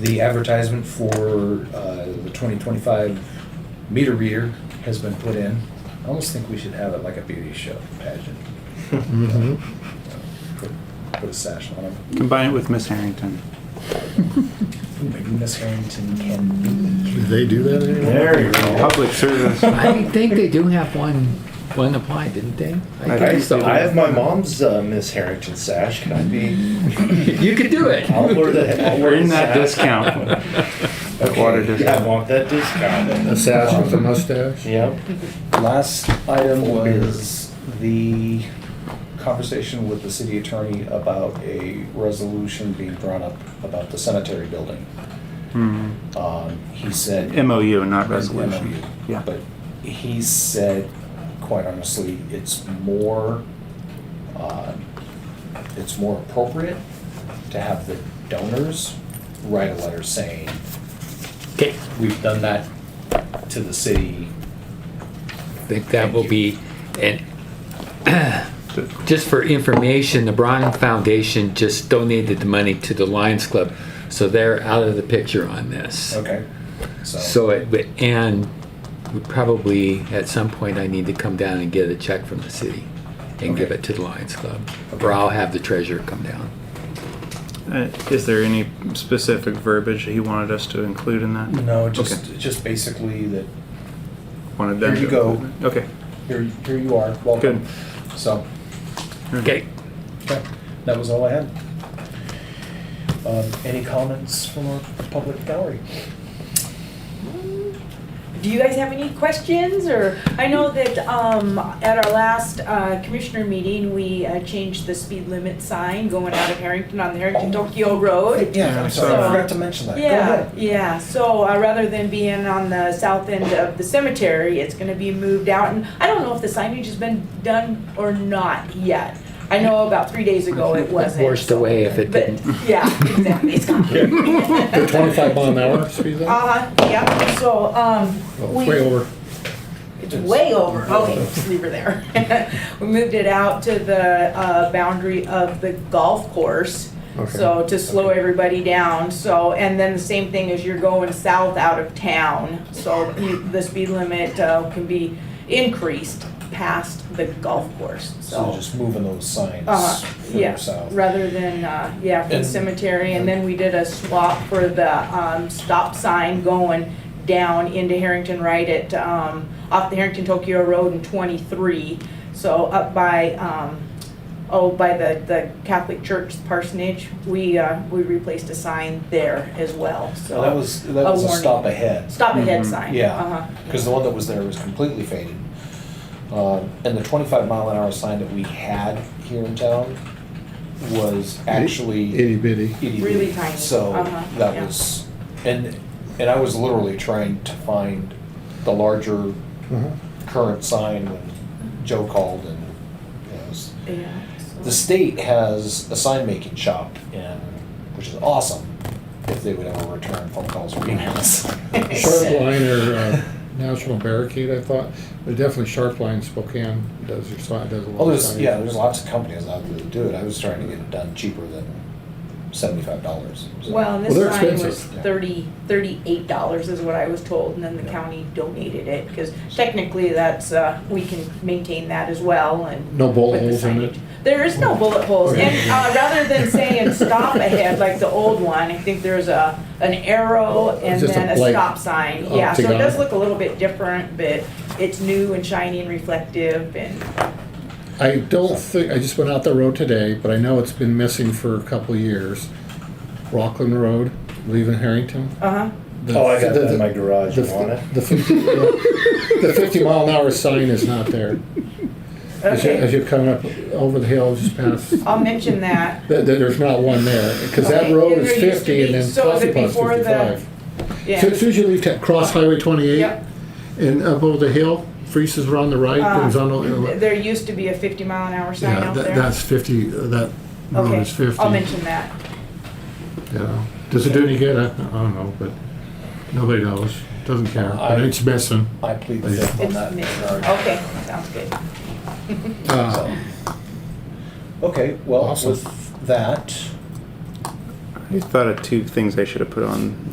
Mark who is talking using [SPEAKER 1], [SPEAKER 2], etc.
[SPEAKER 1] The advertisement for uh, the 2025 meter reader has been put in. I almost think we should have it like a beauty show pageant.
[SPEAKER 2] Mhm.
[SPEAKER 1] Put- Put a sash on it.
[SPEAKER 3] Combine it with Miss Harrington.
[SPEAKER 1] Maybe Miss Harrington can
[SPEAKER 2] Do they do that anymore?
[SPEAKER 4] There you go.
[SPEAKER 3] Public service.
[SPEAKER 5] I think they do have one, one applied, didn't they?
[SPEAKER 3] I
[SPEAKER 4] I,
[SPEAKER 3] think so.
[SPEAKER 4] I have my mom's uh, Miss Harrington sash. Can I be?
[SPEAKER 5] You could do it.
[SPEAKER 4] I'll wear the. I'll wear
[SPEAKER 3] Earn
[SPEAKER 4] the
[SPEAKER 3] that
[SPEAKER 4] sash.
[SPEAKER 3] discount.
[SPEAKER 4] Okay.
[SPEAKER 3] Water
[SPEAKER 4] Yeah,
[SPEAKER 3] discount.
[SPEAKER 4] I want that discount.
[SPEAKER 2] A sash with a mustache?
[SPEAKER 4] Yep.
[SPEAKER 1] be. Last item
[SPEAKER 4] Full beard.
[SPEAKER 1] was the conversation with the city attorney about a resolution being drawn up about the cemetery building.
[SPEAKER 3] Hmm.
[SPEAKER 1] Um, He said.
[SPEAKER 3] MOU, not resolution.
[SPEAKER 1] MOU.
[SPEAKER 3] Yeah.
[SPEAKER 1] But he said, quite honestly, it's more, uh, it's more appropriate to have the donors write a letter saying,
[SPEAKER 5] Okay,
[SPEAKER 1] we've done that to the city.
[SPEAKER 5] I think that will be, and
[SPEAKER 3] So-
[SPEAKER 5] just for information, the Brown Foundation just donated the money to the Lions Club, so they're out of the picture on this.
[SPEAKER 1] Okay. So,
[SPEAKER 5] So, it- but- and we probably, at some point, I need to come down and get a check from the city and give
[SPEAKER 1] Okay.
[SPEAKER 5] it to the Lions Club,
[SPEAKER 1] Okay.
[SPEAKER 5] or I'll have the treasurer come down.
[SPEAKER 3] Uh, Is there any specific verbiage that he wanted us to include in that?
[SPEAKER 1] no, just, just basically that,
[SPEAKER 3] Wanted them
[SPEAKER 1] Here you
[SPEAKER 3] to
[SPEAKER 1] go.
[SPEAKER 3] include it? Okay.
[SPEAKER 1] here, here you are, welcome. So,
[SPEAKER 5] Okay,
[SPEAKER 1] okay, that was all I had. Um, Any comments from our public gallery?
[SPEAKER 6] Do you guys have any questions, or, I know that, um, at our last, uh, commissioner meeting, we uh, changed the speed limit sign going out of Harrington on the Harrington Tokyo Road.
[SPEAKER 1] Yeah, I'm sorry, I forgot to mention that. Go
[SPEAKER 6] Oh, Yeah,
[SPEAKER 1] ahead.
[SPEAKER 6] yeah, so, uh, rather than being on the south end of the cemetery, it's gonna be moved out, and I don't know if the signage has been done or not yet. I know about three days ago it wasn't.
[SPEAKER 5] forced away if it
[SPEAKER 6] But,
[SPEAKER 5] didn't.
[SPEAKER 6] yeah, exactly, it's gone.
[SPEAKER 2] The twenty-five mile an hour speed limit?
[SPEAKER 6] Uh-huh, yeah, so, um, we.
[SPEAKER 2] Way over.
[SPEAKER 6] It's way over, okay, just leave her there. We moved it out to the uh, boundary of the golf course,
[SPEAKER 2] Okay.
[SPEAKER 6] so to slow everybody down, so, and then the same thing as you're going south out of town, so you- the speed limit uh, can be increased past the golf course,
[SPEAKER 1] So
[SPEAKER 6] so.
[SPEAKER 1] just moving those signs
[SPEAKER 6] Uh,
[SPEAKER 1] further
[SPEAKER 6] yeah,
[SPEAKER 1] south.
[SPEAKER 6] rather than, uh, yeah, for the
[SPEAKER 1] And-
[SPEAKER 6] cemetery, and then we did a swap for the, um, stop sign going down into Harrington, right at, um, off the Harrington Tokyo Road and twenty-three, so up by, um, oh, by the, the Catholic Church parsonage, we, uh, we replaced a sign there as well, so.
[SPEAKER 1] Well, that was, that was a
[SPEAKER 6] warning.
[SPEAKER 1] stop ahead,
[SPEAKER 6] Stop ahead sign.
[SPEAKER 1] yeah,
[SPEAKER 6] Uh-huh,
[SPEAKER 1] because the one that was there was completely faded. Um, And the twenty-five mile an hour sign that we had here in town was actually
[SPEAKER 2] Itty bitty.
[SPEAKER 1] itty
[SPEAKER 6] Really
[SPEAKER 1] bitty.
[SPEAKER 6] tiny.
[SPEAKER 1] So
[SPEAKER 6] Uh-huh,
[SPEAKER 1] that
[SPEAKER 6] yeah.
[SPEAKER 1] was, and, and I was literally trying to find the larger
[SPEAKER 2] Mhm.
[SPEAKER 1] current sign when Joe called and, you know, it was
[SPEAKER 6] yeah. so-
[SPEAKER 1] The state has a sign making shop in, which is awesome if they would ever return phone calls or emails.
[SPEAKER 2] Sharp line or, uh, National Barricade, I thought, but definitely Sharp Line Spokane does your sign, does a lot of
[SPEAKER 1] Well, Oh, there's,
[SPEAKER 2] signage.
[SPEAKER 1] yeah, there's lots of companies out there that do it. I was trying to get it done cheaper than seventy-five dollars.
[SPEAKER 6] Well, and this
[SPEAKER 2] Well, they're
[SPEAKER 6] sign was
[SPEAKER 2] expensive.
[SPEAKER 6] thirty, thirty-eight dollars is what I was told, and then the
[SPEAKER 1] Yeah.
[SPEAKER 6] county donated it, because technically that's, uh, we can maintain that as well and.
[SPEAKER 2] No bullet
[SPEAKER 6] with the
[SPEAKER 2] holes in it?
[SPEAKER 6] signage. There is no bullet holes,
[SPEAKER 2] Okay.
[SPEAKER 6] and, uh, rather than saying stop ahead like the old one, I think there's a, an arrow and
[SPEAKER 2] Oh, Just a
[SPEAKER 6] then a
[SPEAKER 2] blank
[SPEAKER 6] stop sign. Yeah, so it does
[SPEAKER 2] octagon.
[SPEAKER 6] look a little bit different, but it's new and shiny and reflective and,
[SPEAKER 2] I don't think, I just went out the road today, but I know it's been missing for a couple of years. Rockland Road, leaving Harrington.
[SPEAKER 6] uh-huh,
[SPEAKER 2] The-
[SPEAKER 4] Oh, I got
[SPEAKER 2] the-
[SPEAKER 4] that in my garage.
[SPEAKER 2] The,
[SPEAKER 4] You want it?
[SPEAKER 2] the fifty, the fifty mile an hour sign is not there. As you- As
[SPEAKER 6] okay,
[SPEAKER 2] you're coming up over the hill, just past,
[SPEAKER 6] I'll mention that.
[SPEAKER 2] there, there's not one there, because that
[SPEAKER 6] Okay,
[SPEAKER 2] road
[SPEAKER 6] and
[SPEAKER 2] is
[SPEAKER 6] there used to
[SPEAKER 2] fifty and
[SPEAKER 6] be-
[SPEAKER 2] then
[SPEAKER 6] so is
[SPEAKER 2] Coffee
[SPEAKER 6] it
[SPEAKER 2] Pot's
[SPEAKER 6] before the-
[SPEAKER 2] fifty-five.
[SPEAKER 6] Yeah.
[SPEAKER 2] So as soon as you leave, ta- cross Highway twenty-eight
[SPEAKER 6] Yep.
[SPEAKER 2] and up over the hill, Freeze's are on the right,
[SPEAKER 6] Uh,
[SPEAKER 2] there's on, the-
[SPEAKER 6] There used to be a 50 mile an hour sign
[SPEAKER 2] yeah,
[SPEAKER 6] out
[SPEAKER 2] that-
[SPEAKER 6] there.
[SPEAKER 2] that's fifty, uh, that road
[SPEAKER 6] Okay,
[SPEAKER 2] is 50
[SPEAKER 6] I'll mention that.
[SPEAKER 2] Yeah. Does it do any good? I I don't know, but nobody knows. Doesn't care. But
[SPEAKER 1] I-
[SPEAKER 2] it's missing.
[SPEAKER 1] I plead the fifth on
[SPEAKER 6] It's
[SPEAKER 1] that.
[SPEAKER 6] mid-
[SPEAKER 1] regard.
[SPEAKER 6] Okay, sounds good.
[SPEAKER 2] Uh,
[SPEAKER 6] Oh.
[SPEAKER 1] So. Okay, well,
[SPEAKER 2] Awesome.
[SPEAKER 1] with that,
[SPEAKER 3] You thought of two things I should have put on